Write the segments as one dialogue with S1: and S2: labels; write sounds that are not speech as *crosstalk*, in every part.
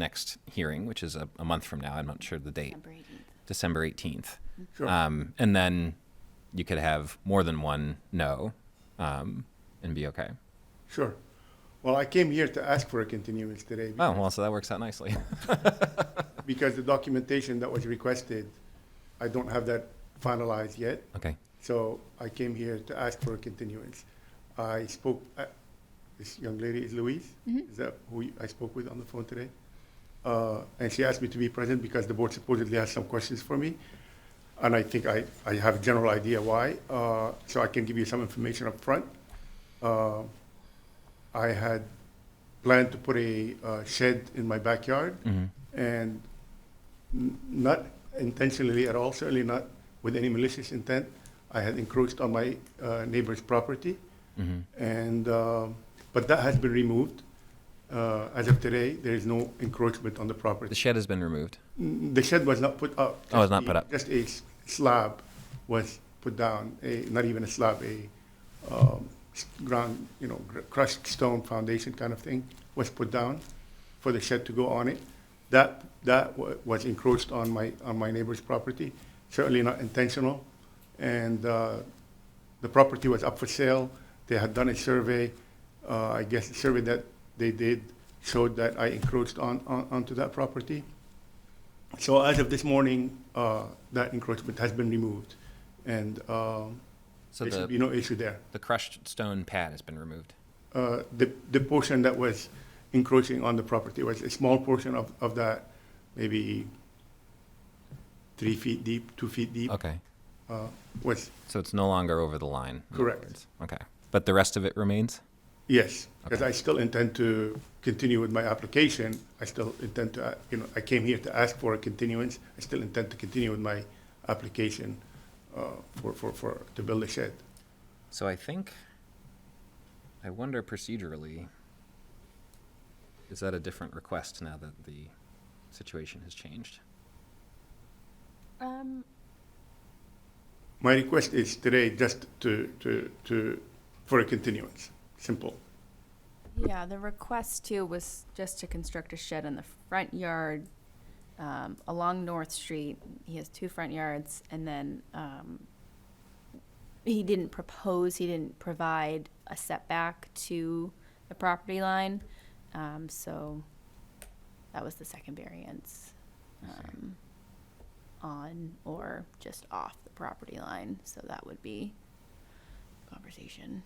S1: next hearing, which is a, a month from now. I'm not sure the date,
S2: December
S1: December
S2: 18th.
S1: 18th.
S3: Sure.
S1: Um, and then you could have more than one no um, and be okay.
S3: Sure. Well, I came here to ask for a continuance today
S1: Oh, well, so that works out nicely.
S3: *laughs* because the documentation that was requested, I don't have that finalized yet.
S1: okay.
S3: So I came here to ask for a continuance. I spoke, uh, this young lady is Louise? Is that who you- I spoke with on the phone today? Uh, And she asked me to be present because the board supposedly has some questions for me. And I think I, I have a general idea why, uh, so I can give you some information up front. Uh, I had planned to put a uh, shed in my backyard
S1: Mhm.
S3: and n- not intentionally at all, certainly not with any malicious intent. I had encroached on my uh, neighbor's property,
S1: Mhm.
S3: and um, but that has been removed. Uh, as of today, there is no encroachment on the
S1: The
S3: property.
S1: shed has been removed.
S3: Mm, The shed was not put up.
S1: Oh, it was
S3: Just
S1: not
S3: a-
S1: put up.
S3: Just a s- slab was put down. A, not even a slab, a um, s- ground, you know, gr- crushed stone foundation kind of thing was put down for the shed to go on it. That that wa- was encroached on my on my neighbor's property. Certainly not intentional, and uh, the property was up for sale. They had done a survey. Uh, I guess the survey that they did showed that I encroached on, on onto that property. So as of this morning, uh, that encroachment has been removed, and um,
S1: So
S3: there should be
S1: the,
S3: no issue there.
S1: the crushed stone pad has been removed.
S3: Uh, The the portion that was encroaching on the property was a small portion of of that, maybe three feet deep, two feet deep,
S1: Okay.
S3: uh, was,
S1: So it's no longer over the line. in other
S3: Correct.
S1: words. Okay. But the rest of it remains?
S3: yes, because
S1: Okay.
S3: I still intend to continue with my application. I still intend to, uh, you know, I came here to ask for a continuance. I still intend to continue with my application uh, for, for, for, to build a shed.
S1: So I think, I wonder procedurally, is that a different request now that the situation has changed?
S2: Um,
S3: My request is today just to, to, to, for a continuance, simple.
S2: yeah, the request too was just to construct a shed in the front yard, um, along North Street. He has two front yards and then, um, he didn't propose, he didn't provide a setback to the property line. Um, so that was the second variance. um, On or just off the property line, so that would be conversation.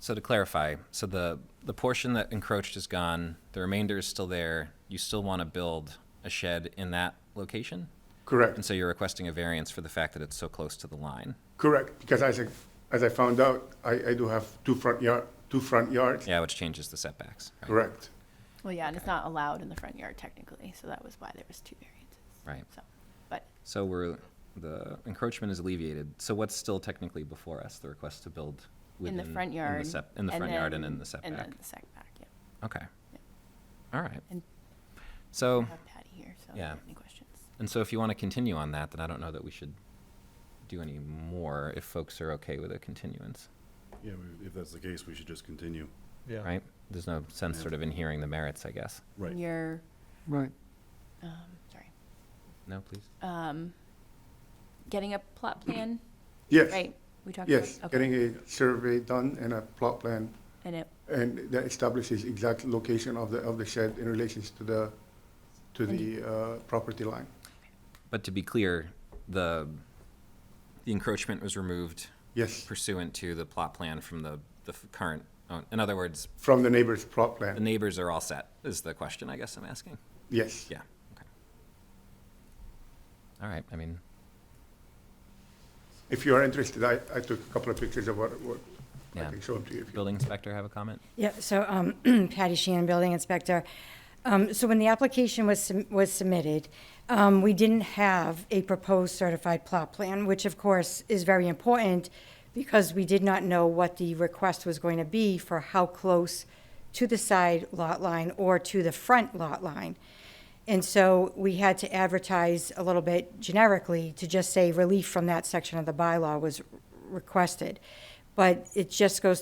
S1: So to clarify, so the, the portion that encroached is gone, the remainder is still there, you still want to build a shed in that location? And
S3: Correct,
S1: so you're requesting a variance for the fact that it's so close to the line?
S3: correct, because as I, as I found out, I, I do have two front yard, two front yards,
S1: Yeah, which changes the setbacks. right?
S3: correct.
S2: Well, yeah, and it's not allowed in the front yard technically, so that was why there was two variances.
S1: Right.
S2: So, but
S1: So we're, the encroachment is alleviated. So what's still technically before us, the request to build
S2: in
S1: within?
S2: the front yard.
S1: sep- In the front yard and in the
S2: then- And
S1: setback?
S2: then the setback, yeah.
S1: Okay. All right.
S2: And-
S1: So,
S2: I have Patty here, so if you
S1: Yeah.
S2: have any questions.
S1: and so if you want to continue on that, then I don't know that we should do any more if folks are okay with a continuance,
S4: Yeah, we- if that's the case, we should just continue.
S5: Yeah,
S1: right? There's no sense sort of in hearing the merits, I guess.
S4: Right.
S2: Your,
S3: Right.
S2: um, sorry,
S1: No, please?
S2: um, getting a plot plan,
S3: Yes,
S2: right? We talked about.
S3: yes,
S2: okay.
S3: getting a survey done and a plot plan,
S2: And it,
S3: and that establishes exact location of the, of the shed in relations to the, to the, uh, property line.
S1: But to be clear, the, the encroachment was removed
S3: Yes,
S1: pursuant to the plot plan from the, the f- current, own- in other words,
S3: from the neighbor's
S1: the
S3: plot plan,
S1: neighbors are all set, is the question I guess I'm asking?
S3: yes.
S1: Yeah, okay. All right, I mean,
S3: If you are interested, I, I took a couple of pictures of what, what, I
S1: Yeah.
S3: can show them to you if you.
S1: building inspector have a comment?
S6: Yeah, so um, *clears throat* Patty Sheehan, Building Inspector. Um, So when the application was, sub- was submitted, um, we didn't have a proposed certified plot plan, which of course is very important because we did not know what the request was going to be for how close to the side lot line or to the front lot line. And so we had to advertise a little bit generically to just say relief from that section of the bylaw was requested. but it just goes